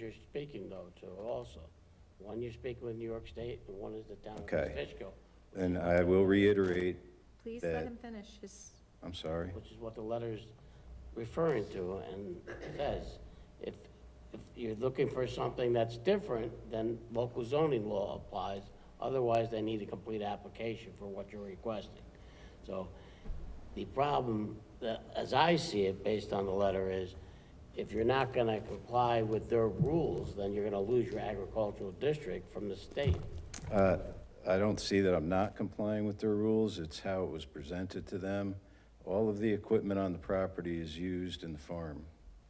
you're speaking though to also. One you're speaking with New York State and one is the town of Okay. Fishkill, And I will reiterate, Please That- let him finish his, I'm sorry. which is what the letter's referring to and says. If, if you're looking for something that's different, then local zoning law applies. Otherwise, they need a complete application for what you're requesting. So the problem, that- as I see it, based on the letter, is if you're not gonna comply with their rules, then you're gonna lose your agricultural district from the state. Uh, I don't see that I'm not complying with their rules. It's how it was presented to them. All of the equipment on the property is used in the farm.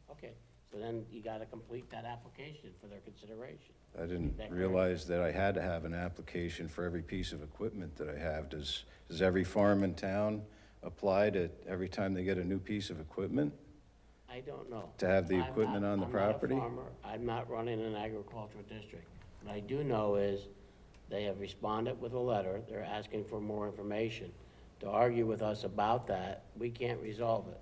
Okay, so then you gotta complete that application for their consideration. I didn't realize that I had to have an application for every piece of equipment that I have. Does, does every farm in town apply to, every time they get a new piece of equipment? I don't know. To have the I'm not- equipment on the property? I'm not a farmer, I'm not running an agricultural district. What I do know is, they have responded with a letter, they're asking for more information. To argue with us about that, we can't resolve it.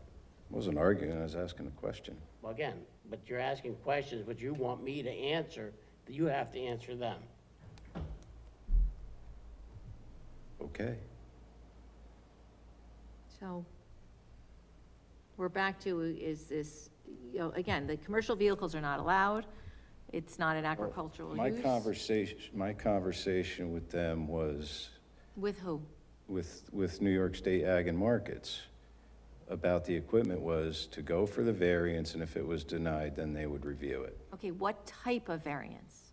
Wasn't arguing, I was asking a question. Well, Again, but you're asking questions, but you want me to answer, you have to answer them. Okay. so we're back to is this, you know, again, the commercial vehicles are not allowed. It's not an agricultural My use. conversation, my conversation with them was With who? with, with New York State Ag and Markets about the equipment was to go for the variance, and if it was denied, then they would review it. Okay, what type of variance?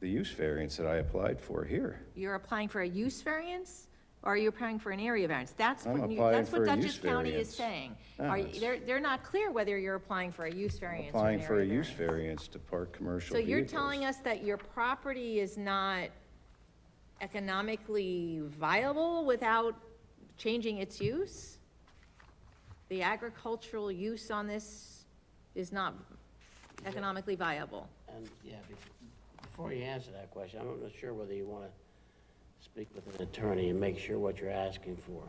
The use variance that I applied for here. You're applying for a use variance, or you're applying for an area variance? That's I'm what, you- applying that's for what a Dutchess use County variance. is saying. No, Are, it's- they're, they're not clear whether you're applying for a use variance or an Applying for a area use variance. variance to park commercial So you're vehicles. telling us that your property is not economically viable without changing its use? The agricultural use on this is not economically viable? And, yeah, bef- before you answer that question, I'm not sure whether you want to speak with an attorney and make sure what you're asking for.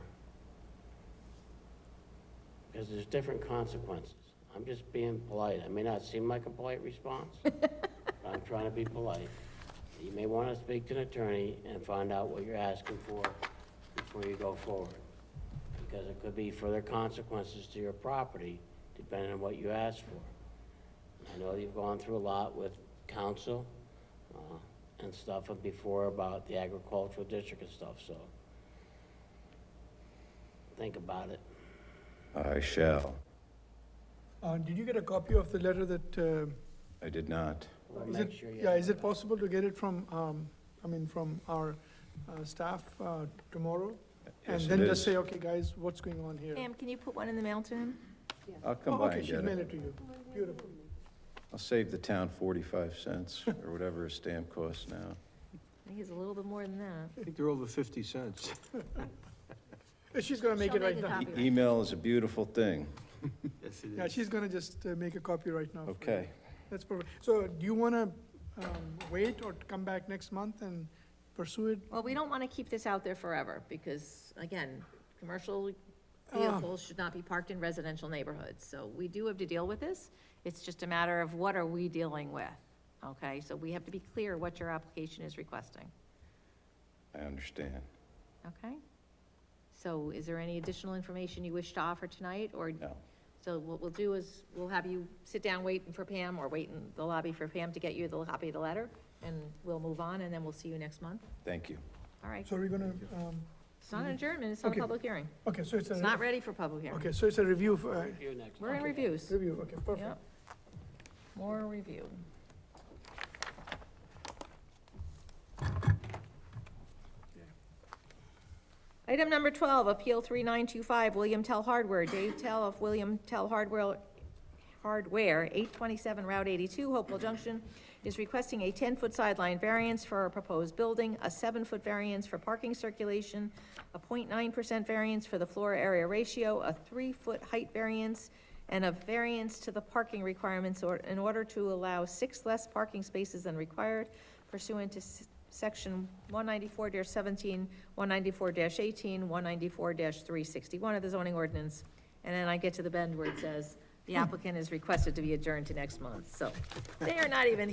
Because there's different consequences. I'm just being polite. I may not seem like a polite response, but I'm trying to be polite. You may want to speak to an attorney and find out what you're asking for before you go forward. Because it could be further consequences to your property, depending on what you ask for. I know you've gone through a lot with council uh, and stuff and before about the agricultural district and stuff, so think about it. I shall. Uh, Did you get a copy of the letter that, uh, I did not. We'll is make it, sure you yeah, have is it possible to get it from, um, I mean, from our uh, staff uh, tomorrow? And Yes, then it just is. say, okay, guys, what's going on here? Pam, can you put one in the mail to him? I'll come Oh, by okay, and she get mailed it it. to you. Beautiful. I'll save the town 45 cents or whatever a stamp costs now. I think it's a little bit more than that. I think they're over 50 cents. Uh, She's gonna make She'll it right make a now. copy. E- Email is a beautiful thing. Yes, Yeah, she's gonna just uh, make a copy right now. for you. Okay. That's perfect. So do you wanna um, wait or come back next month and pursue it? Well, we don't want to keep this out there forever, because, again, commercial vehicles should not be parked in residential neighborhoods, so we do have to deal with this. It's just a matter of what are we dealing with, okay? So we have to be clear what your application is requesting, I understand. okay? So is there any additional information you wish to offer tonight, or? No. So what we'll do is, we'll have you sit down waiting for Pam, or wait in the lobby for Pam to get you the copy of the letter, and we'll move on, and then we'll see you next month, Thank you. all right? So we're gonna, um, It's not an adjournment, it's not a Okay. public hearing. okay, so it's It's not a, ready for public hearing. okay, so it's a review, for, uh, review next We're in time. reviews. review, okay, perfect. Yep. More review. Item number 12, Appeal 3925, William Tell Hardware, Dave Tell of William Tell Hardware, Hardware, 827 Route 82, Hopewell Junction, is requesting a 10-foot sideline variance for a proposed building, a 7-foot variance for parking circulation, a 0.9% variance for the floor area ratio, a 3-foot height variance, and a variance to the parking requirements or, in order to allow six less parking spaces than required pursuant to s- section one ninety-four 17 194-18, 194 three sixty-one of the zoning ordinance. And then I get to the bend where it says, the applicant is requested to be adjourned to next month, so they are not even